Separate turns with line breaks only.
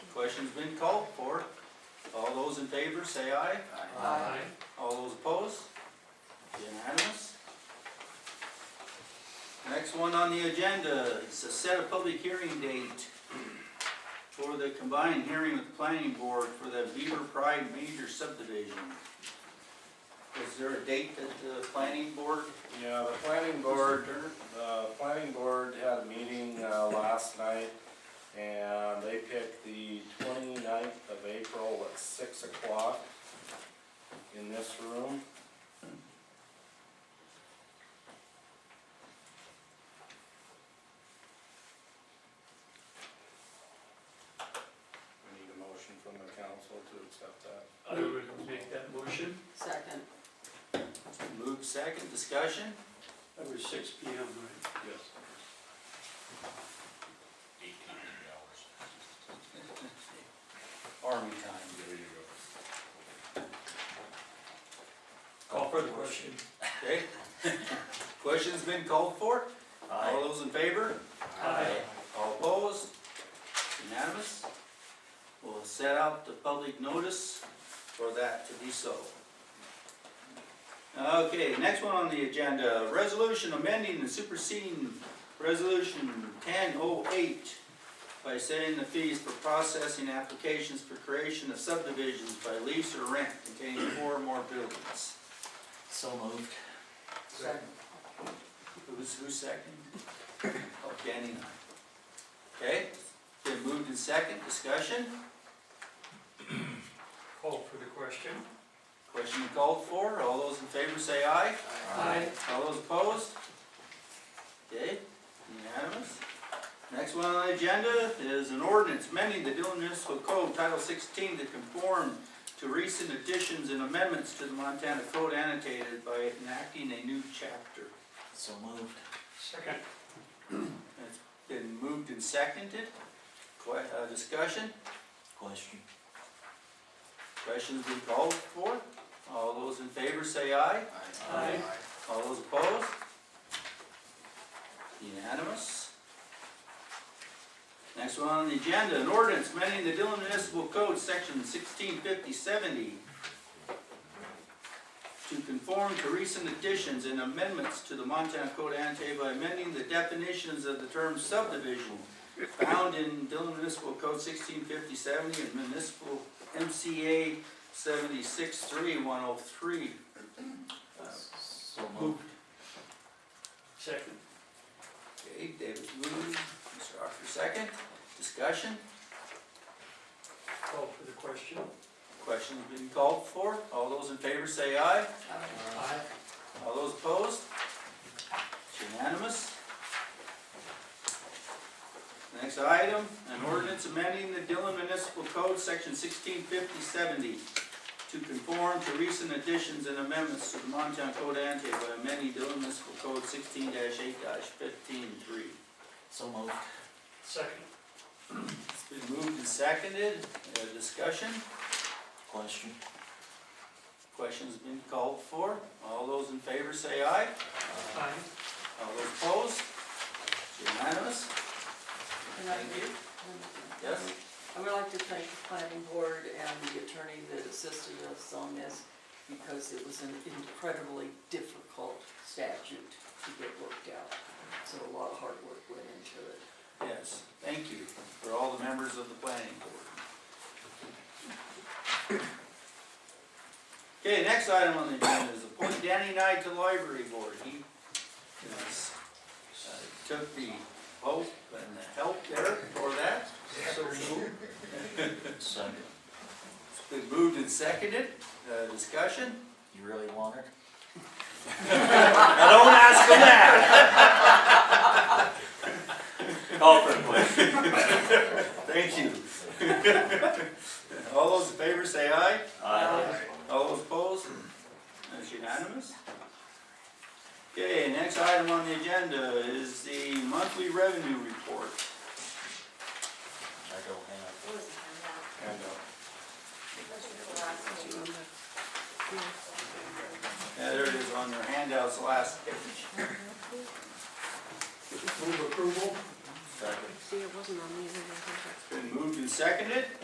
Question's been called for. All those in favor, say aye. All those opposed? Unanimous? Next one on the agenda is to set a public hearing date for the combined hearing with the planning board for the Beaver Pride major subdivision. Is there a date that the planning board?
Yeah, the planning board, the planning board had a meeting, uh, last night, and they picked the 29th of April at six o'clock in this room. We need a motion from the council to accept that.
I would make that motion.
Second.
Move second, discussion?
That was six P M, right?
Yes.
Army time.
There you go.
Call for the question.
Okay? Question's been called for? All those in favor? All opposed? Unanimous? We'll set out the public notice for that to be so. Okay, next one on the agenda, resolution amending and superseding resolution ten oh eight by setting the fees for processing applications for creation of subdivisions by lease or rent containing four or more buildings.
So moved.
Second.
Who's, who's second? Oh, Danny and I. Okay, been moved in second, discussion,
Call for the question.
question called for, all those in favor say aye, all those opposed? Okay, unanimous. Next one on the agenda is an ordinance amending the Dillon Municipal Code Title sixteen to conform to recent additions and amendments to the Montana Code annotated by enacting a new chapter.
So moved.
Second.
It's been moved and seconded, que, uh, discussion?
Question.
Questions been called for? All those in favor say aye.
Aye.
All those opposed? Unanimous. Next one on the agenda, an ordinance amending the Dillon Municipal Code, section sixteen fifty seventy to conform to recent additions and amendments to the Montana Code annotated by amending the definitions of the term subdivision found in Dillon Municipal Code sixteen fifty seventy and municipal MCA seventy-six three one oh three.
So moved.
Second.
Okay, David moved, Mr. Archer second, discussion,
Call for the question.
questions been called for, all those in favor say aye,
Ah,
Aye.
all those opposed? It's unanimous. Next item, an ordinance amending the Dillon Municipal Code, section sixteen fifty seventy, to conform to recent additions and amendments to the Montana Code annotated by amending Dillon Municipal Code sixteen eight fifteen three.
So moved.
Second.
It's been moved and seconded, Uh, discussion?
Question.
Question's been called for. All those in favor say aye.
Aye.
All those opposed? It's unanimous. Thank you. Yes?
I would like to thank the planning board and the attorney that assisted us on this because it was an incredibly difficult statute to get worked out. So a lot of hard work went into it.
Yes. Thank you for all the members of the planning board. Okay, next item on the agenda is appoint Danny Knight to library board. He yes, uh, took the vote and the help there for that.
So moved.
Second.
It's been moved and seconded. Uh, Discussion?
You really want it?
Now, don't ask them that.
Call for the question.
Thank you. All those in favor say aye.
Aye.
All those opposed? That's unanimous. Okay, next item on the agenda is the monthly revenue report.
I don't have.
It was a handout.
And, uh,
It was the last meeting.
Yeah, there it is on your handouts, last page.
Move approval.
Second. See, it wasn't on the other Been moved and seconded.